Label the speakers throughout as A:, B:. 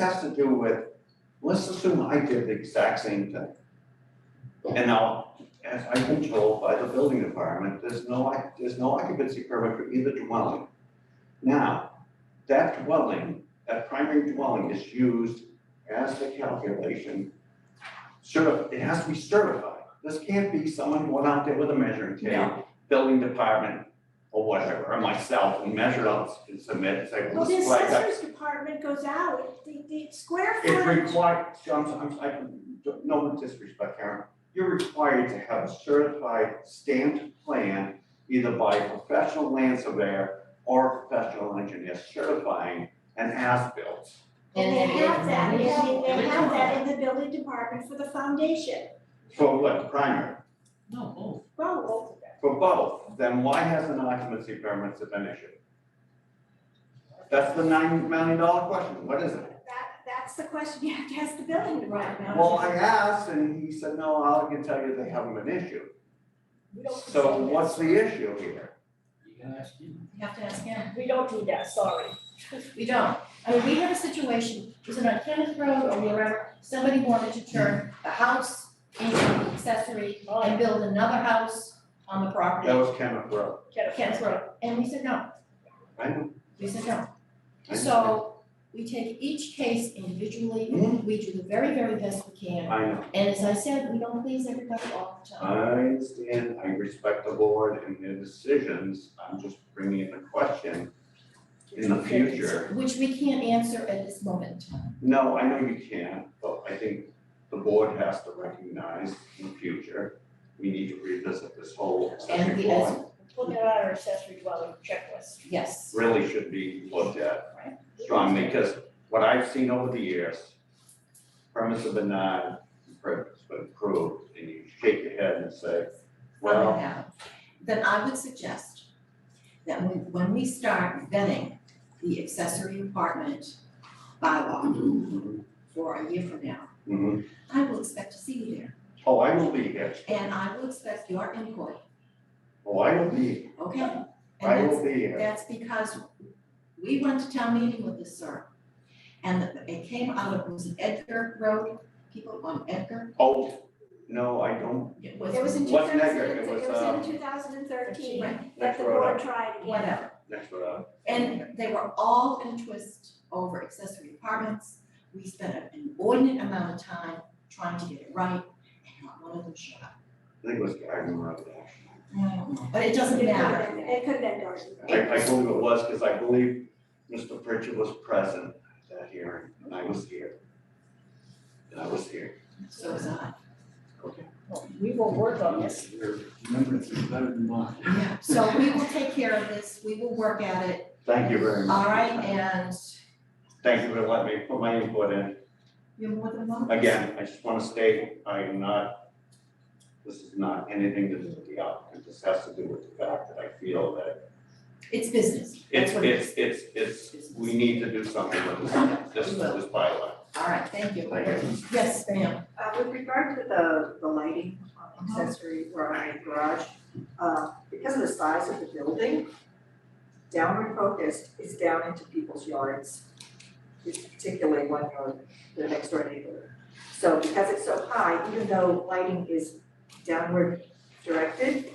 A: has to do with, let's assume I did the exact same thing. And now, as I've been told by the building department, there's no, oc- there's no occupancy permit for either dwelling. Now, that dwelling, that primary dwelling is used as the calculation. Certi, it has to be certified. This can't be someone who went out there with a measuring tape, building department or whatever, or myself, and measured out and submit and say, well,
B: Well, the
A: this is like that.
B: assessor's department goes out, the, the square
A: It
B: footage,
A: requires, I'm, I'm, I can, no disrespect, Karen, you're required to have a certified stamped plan either by a professional land surveyor or a professional engineer certifying an as-built.
B: and they have that, they
C: Yeah.
B: have, they have that in the building department for the foundation,
A: For what, primary,
C: No, both.
B: well,
A: for both, then why hasn't an occupancy permit been issued? That's the nine million dollar question, what is it?
B: that, that's the question you have to ask the building department.
A: Well, I asked and he said, no, all I can tell you, they haven't been issued.
D: We don't
A: So
D: do that.
A: what's the issue here?
C: You can ask him.
D: You have to ask him.
E: We don't do that, sorry.
D: We don't. I mean, we had a situation, was it on Kenneth Road or wherever, somebody wanted to turn the house into an accessory and build another house on the
A: That
D: property.
A: was Kenneth Road.
E: Get it.
D: Kenneth Road, and we said no,
A: I-
D: we said no.
A: I-
D: So we take each case individually,
B: Mm-hmm.
A: Mhm.
D: we do the very, very best we can.
A: I know,
D: And as I said, we don't please everybody all the
B: Uh,
D: time.
A: I understand, I respect the board and their decisions, I'm just bringing in a question in the future.
D: Which we can't answer at this moment in time.
A: No, I know you can't, but I think the board has to recognize in the future, we need to revisit this whole
D: And
A: accessory
D: we, as,
A: dwelling.
E: Look at our accessory dwelling checklist.
D: yes,
A: Really should be looked at strongly, because what I've seen over the years, premise of denied, purpose but approved, and you shake your head and say,
F: from
A: well,
F: it now, then I would suggest that when, when we start vetting the accessory apartment bylaw
A: mhm,
F: for a year from now,
A: mhm.
F: I will expect to see you there,
A: Oh, I will be here.
F: and I will expect your input,
A: Oh, I will be,
F: okay?
A: I
F: And
A: will be here.
F: that's, that's because we went to town meeting with this, sir. And it came out of, was it Edgar Road, people on Edgar,
A: Oh, no, I don't.
F: it was,
B: It was in two
A: What's
B: thousand,
A: Necker? It
B: it
A: was,
B: was
A: uh,
B: in two thousand and thirteen,
F: Right.
B: that the
A: Necker Road.
B: board tried again.
F: whatever.
A: That's what I,
F: And they were all in a twist over accessory apartments. We spent an inordinate amount of time trying to get it right, and not one of them showed up.
A: I think it was Garden Road, actually.
F: But it doesn't matter.
B: It could have been Dorothy.
A: I, I believe it was, because I believe Mr. Pritchard was present at that hearing, and I was here. And I was here.
F: So is I.
E: We will work on this.
C: Your remembrance is better than mine.
F: Yeah, so we will take care of this. We will work at it,
A: Thank you very much.
F: all right? And
A: Thank you for letting me put my input in.
F: you're more than welcome.
A: Again, I just want to state, I am not, this is not anything to do with the applicant. This has to do with the fact that I feel that
F: It's business.
A: It's,
F: That's what it
A: it's, it's, it's,
F: is.
A: we need to do something with this, this, this bylaw.
F: All right, thank you.
A: Thank
F: Yes, ma'am.
G: Uh, with regard to the, the lighting on the accessory or on the garage, uh, because of the size of the building, downward focused is down into people's yards, particularly when you're the next door neighbor. So because it's so high, even though lighting is downward directed,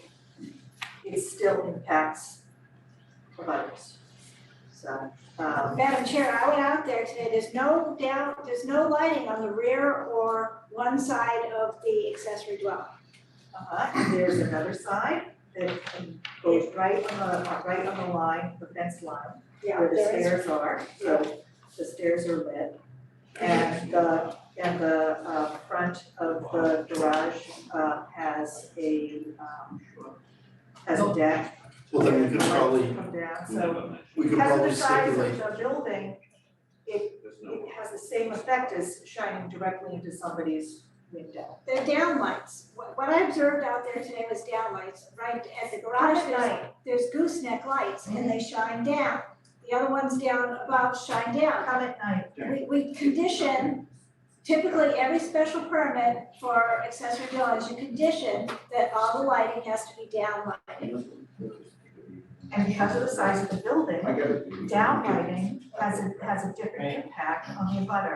G: it still impacts providers. So, um,
B: Madam Chair, I went out there today, there's no down, there's no lighting on the rear or one side of the accessory dwelling.
G: Uh-huh, and there's another side that um, goes right on the, uh, right on the line, the fence line,
B: Yeah,
G: where the
B: there is.
G: stairs are, so the stairs are lit. And the, and the, uh, front of the garage, uh, has a, um, has a deck.
H: Well, then we could
G: where the lights
H: probably,
G: Come down, so
H: we could
G: because of
H: probably
G: the size
H: stipulate,
G: of the building, it, it has the same effect as shining directly into somebody's window.
B: They're downlights. What what I observed out there today was downlights, right at the garage,
G: At
B: there's,
G: night,
B: there's gooseneck lights and they shine down. The other ones down above shine down.
G: come at night.
B: We, we condition, typically every special permit for accessory dwellings, you condition that all the lighting has to be downlighted.
G: And because of the size of the building,
A: I get it.
G: downlighting has a, has a different impact on the butter.